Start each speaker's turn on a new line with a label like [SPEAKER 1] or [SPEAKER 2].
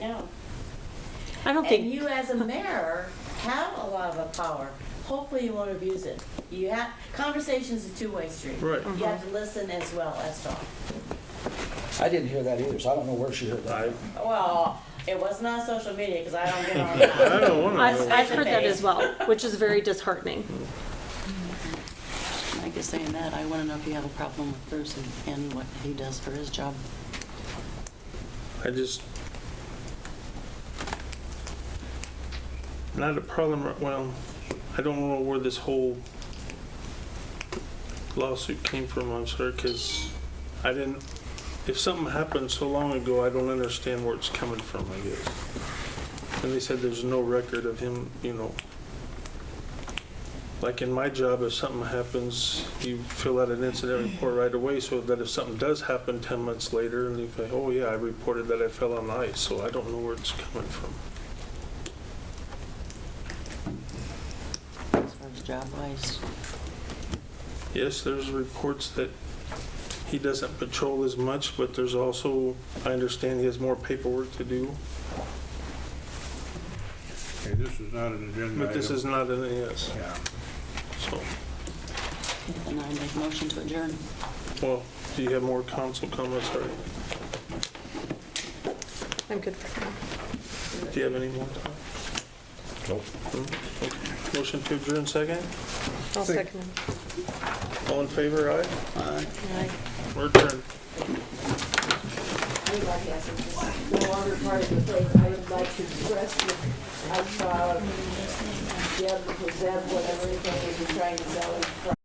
[SPEAKER 1] Yeah.
[SPEAKER 2] I don't
[SPEAKER 1] And
[SPEAKER 2] think,
[SPEAKER 1] you as a mayor have a lot of power. Hopefully you won't abuse it. You have, conversation's a two-way street.
[SPEAKER 3] Right.
[SPEAKER 1] You have to listen as well as talk.
[SPEAKER 4] I didn't hear that either, so I don't know where she heard that.
[SPEAKER 3] I,
[SPEAKER 1] Well, it wasn't on social media because I don't get on that.
[SPEAKER 3] I don't want
[SPEAKER 2] I've,
[SPEAKER 3] to.
[SPEAKER 2] I've heard that as well, which is very disheartening.
[SPEAKER 5] I guess saying that, I want to know if you have a problem with Bruce and- and what he does for his job.
[SPEAKER 3] I just. Not a problem, well, I don't know where this whole lawsuit came from, I'm sorry, because I didn't, if something happened so long ago, I don't understand where it's coming from, I guess. And they said there's no record of him, you know. Like in my job, if something happens, you fill out an incident report right away so that if something does happen 10 months later, and you say, oh yeah, I reported that I fell on ice, so I don't know where it's coming from.
[SPEAKER 5] As far as job wise,
[SPEAKER 3] Yes, there's reports that he doesn't patrol as much, but there's also, I understand he has more paperwork to do,
[SPEAKER 6] Okay, this is not an agenda item.
[SPEAKER 3] but this is not an yes.
[SPEAKER 6] Yeah.
[SPEAKER 3] So,
[SPEAKER 5] and I make motion to adjourn.
[SPEAKER 3] well, do you have more council comments, or
[SPEAKER 2] I'm good for now.
[SPEAKER 3] do you have any more? Nope. Motion to adjourn second?
[SPEAKER 2] I'll second him.
[SPEAKER 3] All in favor, aye?
[SPEAKER 2] Aye.
[SPEAKER 3] We're adjourned.
[SPEAKER 7] Everybody has it. It's no longer part of the thing. I would like to express that I'm proud of Deb, because Deb, whatever it is, is trying to sell his